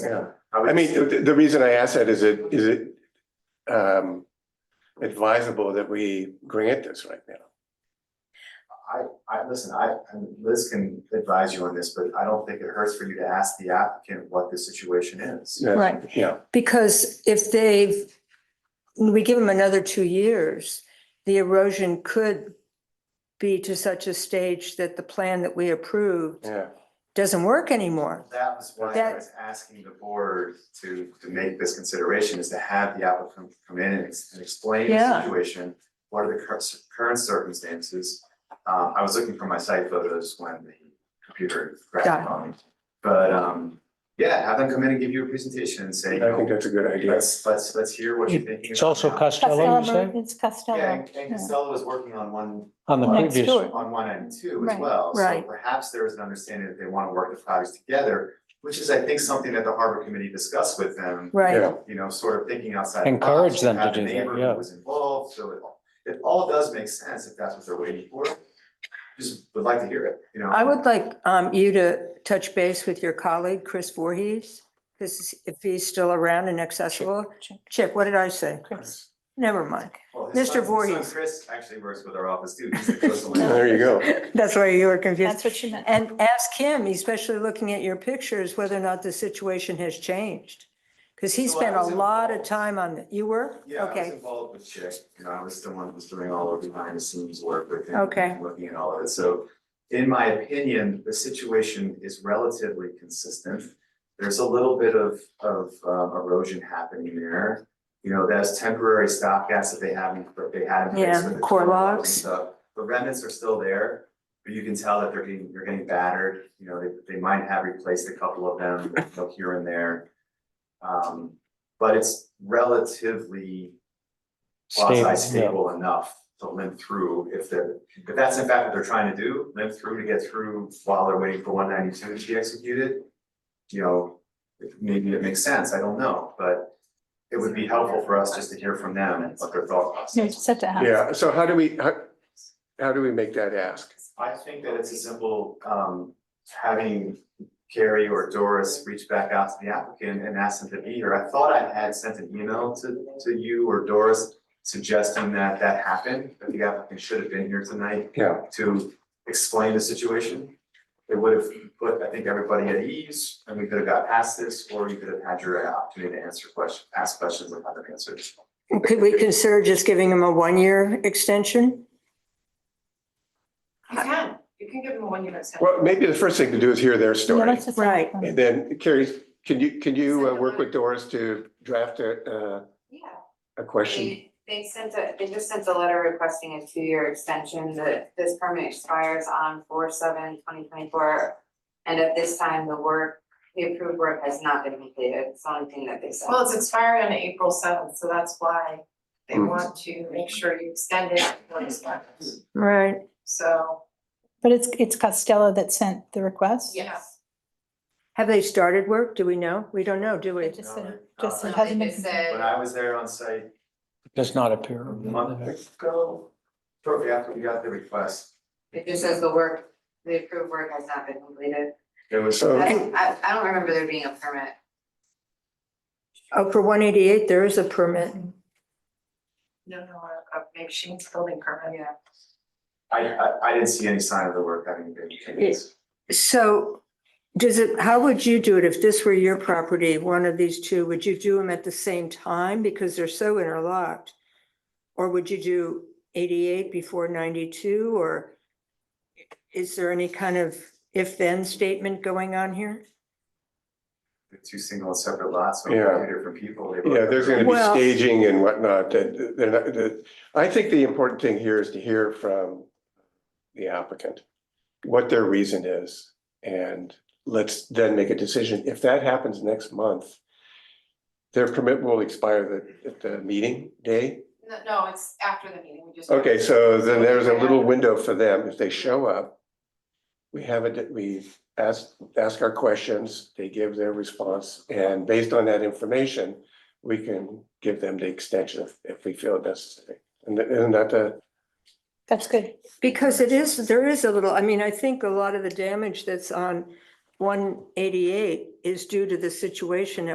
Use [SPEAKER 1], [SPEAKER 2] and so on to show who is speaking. [SPEAKER 1] Yeah,
[SPEAKER 2] would-
[SPEAKER 1] I mean, the, the reason I ask that is it, is it um advisable that we grant this right now?
[SPEAKER 2] I, I, listen, I, and Liz can advise you on this, but I don't think it hurts for you to ask the applicant what the situation is.
[SPEAKER 1] That's-
[SPEAKER 3] Right.
[SPEAKER 1] Yeah,
[SPEAKER 3] Because if they've, we give them another two years, the erosion could be to such a stage that the plan that we approved
[SPEAKER 1] yeah.
[SPEAKER 3] doesn't work anymore.
[SPEAKER 2] That was why I
[SPEAKER 3] That-
[SPEAKER 2] was asking the board to, to make this consideration, is to have the applicant come in and ex- and explain the
[SPEAKER 3] Yeah.
[SPEAKER 2] situation. What are the cur- current circumstances? Um, I was looking for my site photos when the computer
[SPEAKER 3] Got
[SPEAKER 2] crashed on me. But, um, yeah, have them come in and give you a presentation and say,
[SPEAKER 1] I
[SPEAKER 2] you know,
[SPEAKER 1] think that's a good idea.
[SPEAKER 2] let's, let's, let's hear what you're thinking.
[SPEAKER 4] It's also
[SPEAKER 2] about now.
[SPEAKER 4] Costello, you
[SPEAKER 5] Costello,
[SPEAKER 4] say,
[SPEAKER 5] it's
[SPEAKER 2] Yeah,
[SPEAKER 5] Costello.
[SPEAKER 2] and- and Costello was working on one
[SPEAKER 4] on the
[SPEAKER 5] Next
[SPEAKER 4] previous.
[SPEAKER 5] door.
[SPEAKER 2] on one end too as
[SPEAKER 5] Right,
[SPEAKER 2] well.
[SPEAKER 3] right.
[SPEAKER 2] So perhaps there is an understanding that they want to work the projects together, which is, I think, something that the harbor committee discussed with them.
[SPEAKER 3] Right,
[SPEAKER 1] Yeah.
[SPEAKER 2] You know, sort of thinking outside. the
[SPEAKER 4] Encourage
[SPEAKER 2] box,
[SPEAKER 4] them to
[SPEAKER 2] have the
[SPEAKER 4] do that,
[SPEAKER 2] neighbor who
[SPEAKER 4] yeah.
[SPEAKER 2] Was involved, so it all, it all does make sense if that's what they're waiting for. Just would like to hear it, you know?
[SPEAKER 3] I would like um, you to touch base with your colleague, Chris Voorhees, because if he's still around and accessible.
[SPEAKER 5] Chick.
[SPEAKER 3] Chick, what did I say?
[SPEAKER 5] Chris.
[SPEAKER 3] Never mind.
[SPEAKER 2] Well, his
[SPEAKER 3] Mr.
[SPEAKER 2] son- his son
[SPEAKER 3] Voorhees.
[SPEAKER 2] Chris actually works with our office too. He's the coastal
[SPEAKER 1] There you go.
[SPEAKER 3] That's why you were confused.
[SPEAKER 5] That's what you meant.
[SPEAKER 3] And ask him, especially looking at your pictures, whether or not the situation has changed. Because he
[SPEAKER 2] So I
[SPEAKER 3] spent a
[SPEAKER 2] was
[SPEAKER 3] lot of
[SPEAKER 2] involved.
[SPEAKER 3] time on, it. you were?
[SPEAKER 2] Yeah, I was
[SPEAKER 3] Okay,
[SPEAKER 2] involved with Chick, you know, I was the one who was doing all of the behind the scenes work with him.
[SPEAKER 3] Okay.
[SPEAKER 2] and Looking at all of it, so in my opinion, the situation is relatively consistent. There's a little bit of of um, erosion happening there, you know, that's temporary stop gas that they haven't, that they had in place
[SPEAKER 3] Yeah,
[SPEAKER 2] with the
[SPEAKER 3] core
[SPEAKER 2] tree logs and
[SPEAKER 3] logs.
[SPEAKER 2] stuff. The remnants are still there, but you can tell that they're getting, they're getting battered, you know, they they might have replaced a couple of them, you know, here and there. Um, but it's relatively
[SPEAKER 4] Stable, yeah.
[SPEAKER 2] quasi-stable enough to limp through if they're, if that's in fact what they're trying to do, limp through to get through while they're waiting for one ninety-two to be executed. You know, maybe it makes sense, I don't know, but it would be helpful for us just to hear from them and what their thought
[SPEAKER 5] You
[SPEAKER 2] process.
[SPEAKER 5] just have to ask.
[SPEAKER 1] Yeah, so how do we, how, how do we make that ask?
[SPEAKER 2] I think that it's a simple, um, having Carrie or Doris reach back out to the applicant and ask them to be here. I thought I had sent an email to, to you or Doris suggesting that that happened, that the applicant should have been here tonight
[SPEAKER 1] Yeah,
[SPEAKER 2] to explain the situation. It would have put, I think, everybody at ease, and we could have got past this, or you could have had your opportunity to answer questions, ask questions and have them answered.
[SPEAKER 3] could we consider just giving him a one-year extension?
[SPEAKER 6] You can, you can give them a one year extension.
[SPEAKER 1] well, maybe the first thing to do is hear their
[SPEAKER 5] Yeah,
[SPEAKER 1] story.
[SPEAKER 5] let's just-
[SPEAKER 3] Right.
[SPEAKER 1] And then Carrie, can you, can you uh, work with Doris to draft a, uh,
[SPEAKER 6] Yeah,
[SPEAKER 1] a question?
[SPEAKER 6] they, they sent a, they just sent a letter requesting a two-year extension, that this permit expires on four seven twenty twenty-four. And at this time, the work, the approved work has not been completed, it's the only thing that they said.
[SPEAKER 7] Well, it's expiring on April seventh, so that's why they
[SPEAKER 1] Mm.
[SPEAKER 7] want to make sure you extend it before it expires.
[SPEAKER 3] Right.
[SPEAKER 7] So,
[SPEAKER 5] But it's, it's Costello that sent the request?
[SPEAKER 7] yes,
[SPEAKER 3] Have they started work? Do we know? We don't know, do we?
[SPEAKER 5] It just,
[SPEAKER 2] No,
[SPEAKER 5] said-
[SPEAKER 2] no,
[SPEAKER 5] just
[SPEAKER 2] no.
[SPEAKER 5] it
[SPEAKER 6] I
[SPEAKER 5] hasn't
[SPEAKER 6] think they
[SPEAKER 5] been. completed.
[SPEAKER 2] When
[SPEAKER 6] said,
[SPEAKER 2] I was there on site
[SPEAKER 4] Does not appear.
[SPEAKER 2] a month ago, shortly after we got the request,
[SPEAKER 6] it just says the work, the approved work has not been completed.
[SPEAKER 2] there was.
[SPEAKER 1] So-
[SPEAKER 6] That's- I, I don't remember there being a permit.
[SPEAKER 3] Oh, for one eighty-eight, there is a permit.
[SPEAKER 7] no, no, uh, uh, maybe she needs a building permit.
[SPEAKER 6] Yeah.
[SPEAKER 2] I, I, I didn't see any sign of the work having been finished.
[SPEAKER 3] So does it, how would you do it if this were your property, one of these two? Would you do them at the same time because they're so interlocked? Or would you do 88 before 92 or is there any kind of if-then statement going on here?
[SPEAKER 2] The two single and separate lots, so we
[SPEAKER 1] Yeah.
[SPEAKER 2] hear different people. they were-
[SPEAKER 1] Yeah, there's gonna be
[SPEAKER 3] Well-
[SPEAKER 1] staging and whatnot, that, they're not- that, I think the important thing here is to hear from the applicant, what their reason is, and let's then make a decision. If that happens next month, their permit will expire the, at the meeting day.
[SPEAKER 6] No, no, it's after the meeting, we just.
[SPEAKER 1] Okay, so then there's a little window for them, if they show up. We have a, we ask, ask our questions, they give their response, and based on that information. We can give them the extension if, if we feel necessary, and th- isn't that the,
[SPEAKER 5] That's good.
[SPEAKER 3] Because it is, there is a little, I mean, I think a lot of the damage that's on one eighty-eight is due to the situation